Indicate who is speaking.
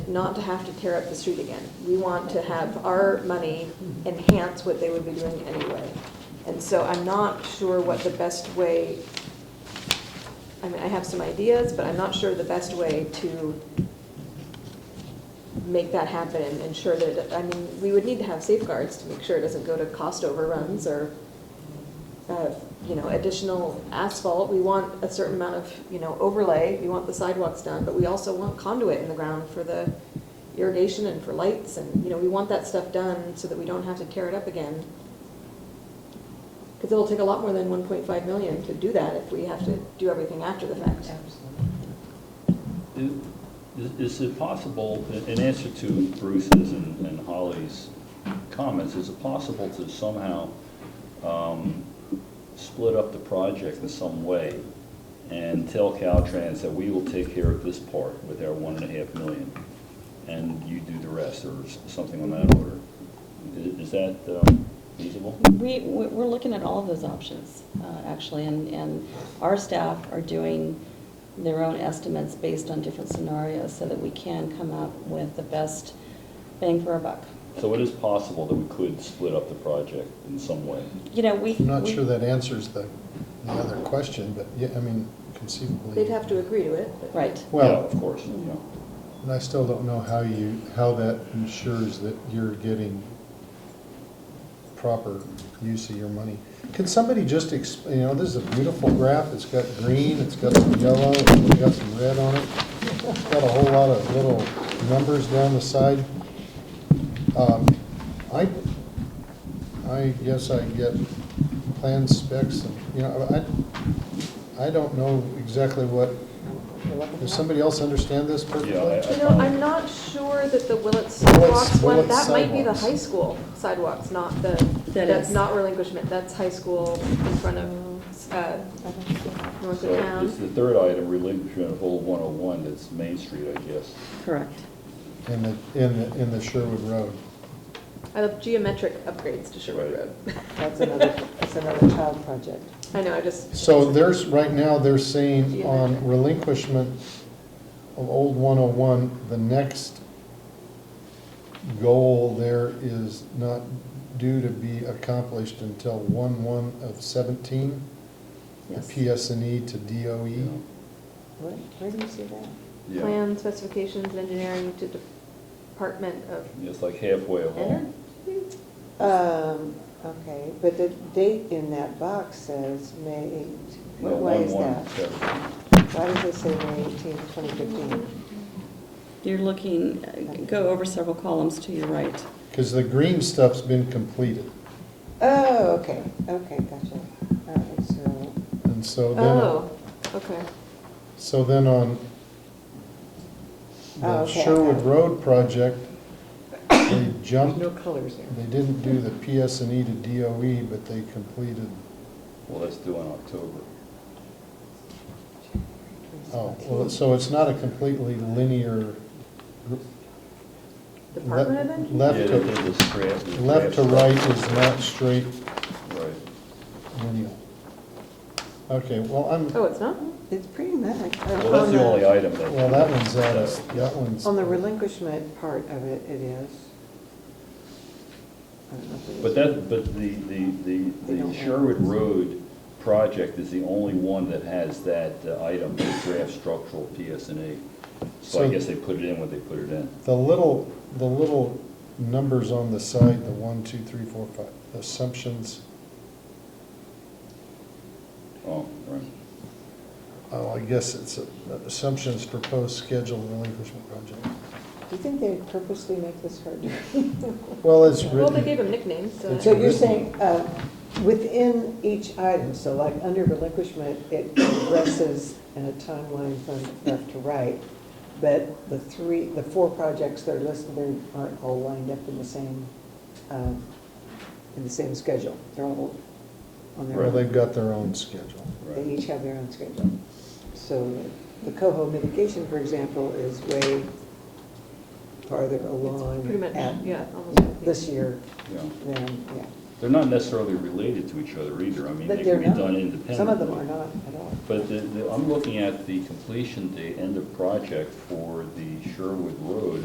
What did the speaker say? Speaker 1: not to have to tear up the street again. We want to have our money enhance what they would be doing anyway. And so I'm not sure what the best way, I mean, I have some ideas, but I'm not sure the best way to make that happen and ensure that, it- I mean, we would need to have safeguards to make sure it doesn't go to cost overruns or, uh, you know, additional asphalt. We want a certain amount of, you know, overlay, we want the sidewalks done, but we also want conduit in the ground for the irrigation and for lights and, you know, we want that stuff done so that we don't have to tear it up again. Because it'll take a lot more than 1.5 million to do that if we have to do everything after the fact.
Speaker 2: Is- Is it possible, in answer to Bruce's and and Holly's comments, is it possible to somehow um, split up the project in some way and tell Caltrans that we will take care of this part with our one and a half million, and you do the rest, or s- something on that order? I- Is that um, feasible?
Speaker 3: We, we- we're looking at all of those options, uh, actually, and, and our staff are doing their own estimates based on different scenarios so that we can come up with the best bang for our buck.
Speaker 2: So it is possible that we could split up the project in some way.
Speaker 3: You know, we.
Speaker 4: I'm not
Speaker 3: we-
Speaker 4: sure that answers the, the other question, but yeah, I mean, conceivably.
Speaker 1: They'd have to agree to it, but.
Speaker 3: Right,
Speaker 2: Yeah,
Speaker 4: Well,
Speaker 2: Of course, yeah.
Speaker 4: and I still don't know how you, how that ensures that you're getting proper use of your money. Can somebody just, ex- you know, this is a beautiful graph, it's got green, it's got some yellow, it's got some red on it. It's Got a whole lot of little numbers down the side. Um, I, I guess I get plan specs, and you know, I, I don't know exactly what, does somebody else understand this perfectly?
Speaker 2: Yeah, I- I
Speaker 1: You know,
Speaker 2: follow.
Speaker 1: I'm not sure that the Willett
Speaker 4: Willett's-
Speaker 1: sidewalks one,
Speaker 4: Willett's
Speaker 1: that might be the
Speaker 4: sidewalks.
Speaker 1: high school sidewalks, not the,
Speaker 3: That
Speaker 1: that's
Speaker 3: is.
Speaker 1: not relinquishment, that's high school in front of, uh, north of
Speaker 2: So it's
Speaker 1: town.
Speaker 2: the third item, relinquishment of old 101, that's Main Street, I guess.
Speaker 3: correct.
Speaker 4: In the, in the, in the Sherwood Road.
Speaker 1: I love geometric upgrades to Sherwood
Speaker 2: Right.
Speaker 1: Road.
Speaker 5: That's another, that's another child project.
Speaker 1: I know, I just.
Speaker 4: So there's, right now, they're saying on relinquishment of old 101, the next goal there is not due to be accomplished until 1/1 of 17, the
Speaker 3: Yes.
Speaker 4: PSNE E to DOE.
Speaker 5: Where, where do you see that?
Speaker 2: Yeah.
Speaker 1: Plan specifications and engineering to Department of
Speaker 2: It's like halfway along.
Speaker 1: Energy?
Speaker 5: Um, okay, but the date in that box says May 8.
Speaker 2: No,
Speaker 5: What- Why is
Speaker 2: 1-1,
Speaker 5: that?
Speaker 2: so-
Speaker 5: Why does it say May 18, 2015?
Speaker 3: You're looking, uh, go over several columns to your right.
Speaker 4: Because the green stuff's been completed.
Speaker 5: Oh, okay, okay, gotcha. All right, so,
Speaker 4: And so then, uh,
Speaker 1: Oh, okay.
Speaker 4: so then on
Speaker 5: Oh,
Speaker 4: the
Speaker 5: okay, I
Speaker 4: Sherwood
Speaker 5: got it.
Speaker 4: Road project, they
Speaker 5: there's
Speaker 4: jumped
Speaker 5: no colors there.
Speaker 4: They didn't do the PS&E E to DOE, but they completed,
Speaker 2: Well, that's due in October.
Speaker 4: oh, well, so it's not a completely linear. gr-
Speaker 1: Department of
Speaker 4: le-
Speaker 1: Energy?
Speaker 4: Left
Speaker 2: Yeah,
Speaker 4: to,
Speaker 2: there's a strap- there's a
Speaker 4: left to
Speaker 2: strap
Speaker 4: right
Speaker 2: stop.
Speaker 4: is not straight
Speaker 2: Right.
Speaker 4: linear. Okay, well, I'm,
Speaker 1: Oh, it's not?
Speaker 5: It's pretty much. uh,
Speaker 2: Well, that's the only item that.
Speaker 4: well, that one's out of, that one's,
Speaker 5: On the relinquishment part of it, it is. I don't know if it is.
Speaker 2: But that, but the, the, the-
Speaker 5: They don't
Speaker 2: the
Speaker 5: have-
Speaker 2: Sherwood Road project is the only one that has that uh, item, the draft structural PSNA. So I
Speaker 4: So-
Speaker 2: guess they put it in when they put it in.
Speaker 4: the little, the little numbers on the side, the one, two, three, four, five, assumptions.
Speaker 2: Oh, right.
Speaker 4: Oh, I guess it's uh, assumptions proposed schedule relinquishment project.
Speaker 5: Do you think they purposely make this hard to
Speaker 4: Well, it's
Speaker 1: Well, they
Speaker 4: written,
Speaker 1: gave them nicknames, so.
Speaker 4: It's
Speaker 5: So
Speaker 1: that-
Speaker 5: you're saying, uh, within each item, so like under relinquishment, it progresses in a timeline from left to right, but the three, the four projects that are listed there aren't all lined up in the same, um, in the same schedule. They're all on their
Speaker 4: well,
Speaker 5: own.
Speaker 4: they've got their own schedule.
Speaker 2: Right.
Speaker 5: They each have their own schedule. So the coho mitigation, for example, is way farther along
Speaker 1: Pretty much,
Speaker 5: at
Speaker 1: yeah, almost.
Speaker 5: this year
Speaker 2: Yeah.
Speaker 5: than, yeah.
Speaker 2: They're not necessarily related to each other either. I mean, they
Speaker 5: But they're
Speaker 2: can be
Speaker 5: not.
Speaker 2: done independently.
Speaker 5: Some of them are not at all.
Speaker 2: But the, the, I'm looking at the completion date, end of project for the Sherwood Road